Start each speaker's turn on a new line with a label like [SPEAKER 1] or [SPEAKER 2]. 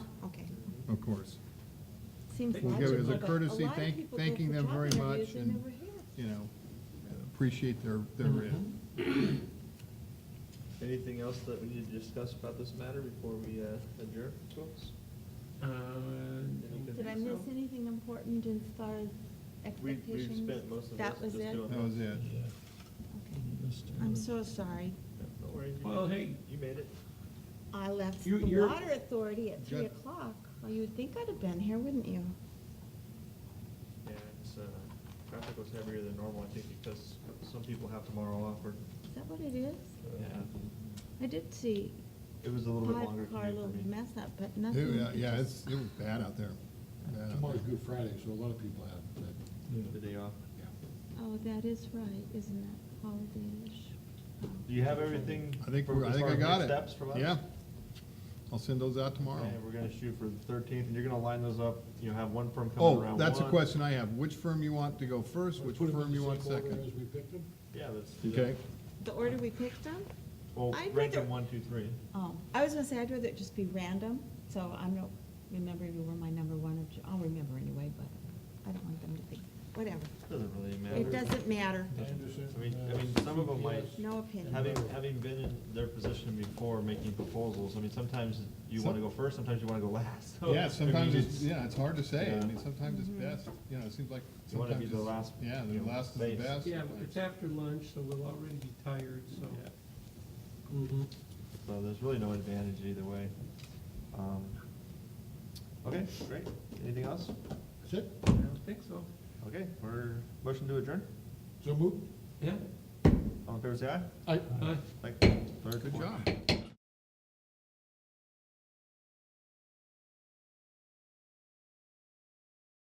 [SPEAKER 1] of course.
[SPEAKER 2] Seems
[SPEAKER 1] We'll give it as
[SPEAKER 2] logical,
[SPEAKER 1] a
[SPEAKER 2] but
[SPEAKER 1] courtesy,
[SPEAKER 2] lot of
[SPEAKER 1] thank-
[SPEAKER 2] people go
[SPEAKER 1] thanking
[SPEAKER 2] for
[SPEAKER 1] them
[SPEAKER 2] job
[SPEAKER 1] very
[SPEAKER 2] interviews
[SPEAKER 1] much
[SPEAKER 2] they
[SPEAKER 1] and-
[SPEAKER 2] never hear.
[SPEAKER 1] you know, appreciate their, their
[SPEAKER 3] Mm-hmm.
[SPEAKER 1] writ.
[SPEAKER 3] Anything else that we need to discuss about this matter before we uh, adjourn, folks?
[SPEAKER 4] Uh,
[SPEAKER 2] Did I miss anything important as far as
[SPEAKER 3] We-
[SPEAKER 2] expectations?
[SPEAKER 3] We've spent most of this
[SPEAKER 2] That
[SPEAKER 3] just
[SPEAKER 2] was it?
[SPEAKER 3] doing.
[SPEAKER 1] That was it.
[SPEAKER 2] Okay. I'm so sorry.
[SPEAKER 3] Don't worry. you
[SPEAKER 4] Well,
[SPEAKER 3] made
[SPEAKER 4] hey.
[SPEAKER 3] it. You made it.
[SPEAKER 2] I left
[SPEAKER 4] You-
[SPEAKER 2] the
[SPEAKER 4] you're-
[SPEAKER 2] water authority at three
[SPEAKER 1] Good.
[SPEAKER 2] o'clock. Well, you would think I'd have been here, wouldn't you?
[SPEAKER 3] Yeah, it's, uh, traffic was heavier than normal, I think, because some people have tomorrow off or, uh,
[SPEAKER 2] Is that what it is?
[SPEAKER 3] yeah.
[SPEAKER 2] I did see
[SPEAKER 3] It was a little bit longer
[SPEAKER 2] five-car
[SPEAKER 3] commute for me.
[SPEAKER 2] little mess up, but nothing.
[SPEAKER 1] It- Yeah, it's, it was bad out there. Bad out there.
[SPEAKER 5] Tomorrow's Good Friday, so a lot of people have, that,
[SPEAKER 3] The day off.
[SPEAKER 5] yeah.
[SPEAKER 2] Oh, that is right, isn't it? Holiday-ish. Oh.
[SPEAKER 3] Do you have everything?
[SPEAKER 1] I think,
[SPEAKER 3] for-
[SPEAKER 1] we're- I
[SPEAKER 3] as
[SPEAKER 1] think
[SPEAKER 3] far
[SPEAKER 1] I
[SPEAKER 3] as
[SPEAKER 1] got
[SPEAKER 3] next
[SPEAKER 1] it.
[SPEAKER 3] Steps from us?
[SPEAKER 1] Yeah. I'll send those out tomorrow.
[SPEAKER 3] And we're gonna shoot for the thirteenth, and you're gonna line those up, you'll have one firm coming
[SPEAKER 1] Oh,
[SPEAKER 3] around one.
[SPEAKER 1] that's a question I have. Which firm you want to go first,
[SPEAKER 5] Let's
[SPEAKER 1] which
[SPEAKER 5] put 'em in
[SPEAKER 1] firm
[SPEAKER 5] the
[SPEAKER 1] you want
[SPEAKER 5] same order
[SPEAKER 1] second?
[SPEAKER 5] As we picked them.
[SPEAKER 3] Yeah, let's do that.
[SPEAKER 1] Okay,
[SPEAKER 2] The order we picked them?
[SPEAKER 3] Well,
[SPEAKER 2] I'd
[SPEAKER 3] rank them
[SPEAKER 2] rather-
[SPEAKER 3] one, two, three.
[SPEAKER 2] Oh, I was gonna say, I'd rather it just be random, so I don't remember if you were my number one or two. I'll remember anyway, but I don't want them to think, whatever.
[SPEAKER 3] Doesn't really matter.
[SPEAKER 2] It doesn't matter.
[SPEAKER 5] Anderson.
[SPEAKER 3] I mean- I
[SPEAKER 5] uh,
[SPEAKER 3] mean, some of 'em might-
[SPEAKER 5] CPS.
[SPEAKER 2] No opinion.
[SPEAKER 3] Having, having been in their position before, making proposals, I mean, sometimes you wanna go first, sometimes you wanna go last. So, I
[SPEAKER 1] yeah,
[SPEAKER 3] mean,
[SPEAKER 1] sometimes it's, yeah, it's hard to say.
[SPEAKER 3] Yeah.
[SPEAKER 1] I mean, sometimes it's
[SPEAKER 2] Mm-hmm.
[SPEAKER 1] best, you know, it seems like
[SPEAKER 3] You wanna be
[SPEAKER 1] sometimes
[SPEAKER 3] the
[SPEAKER 1] it's-
[SPEAKER 3] last,
[SPEAKER 1] Yeah,
[SPEAKER 3] you
[SPEAKER 1] the
[SPEAKER 3] know,
[SPEAKER 1] last is the
[SPEAKER 3] base.
[SPEAKER 1] best.
[SPEAKER 4] Yeah, but it's after lunch, so we'll already be tired, so.
[SPEAKER 3] Yeah.
[SPEAKER 4] Mhm.
[SPEAKER 3] So there's really no advantage either way. Um, Okay, great. Anything else?
[SPEAKER 5] That's it?
[SPEAKER 4] I don't think so.
[SPEAKER 3] Okay, we're, motion to adjourn?
[SPEAKER 5] So moved?
[SPEAKER 4] Yeah.
[SPEAKER 3] All in favor, say aye.
[SPEAKER 5] I,
[SPEAKER 4] Aye.
[SPEAKER 3] Like, third,
[SPEAKER 1] Good
[SPEAKER 3] fourth.
[SPEAKER 1] job.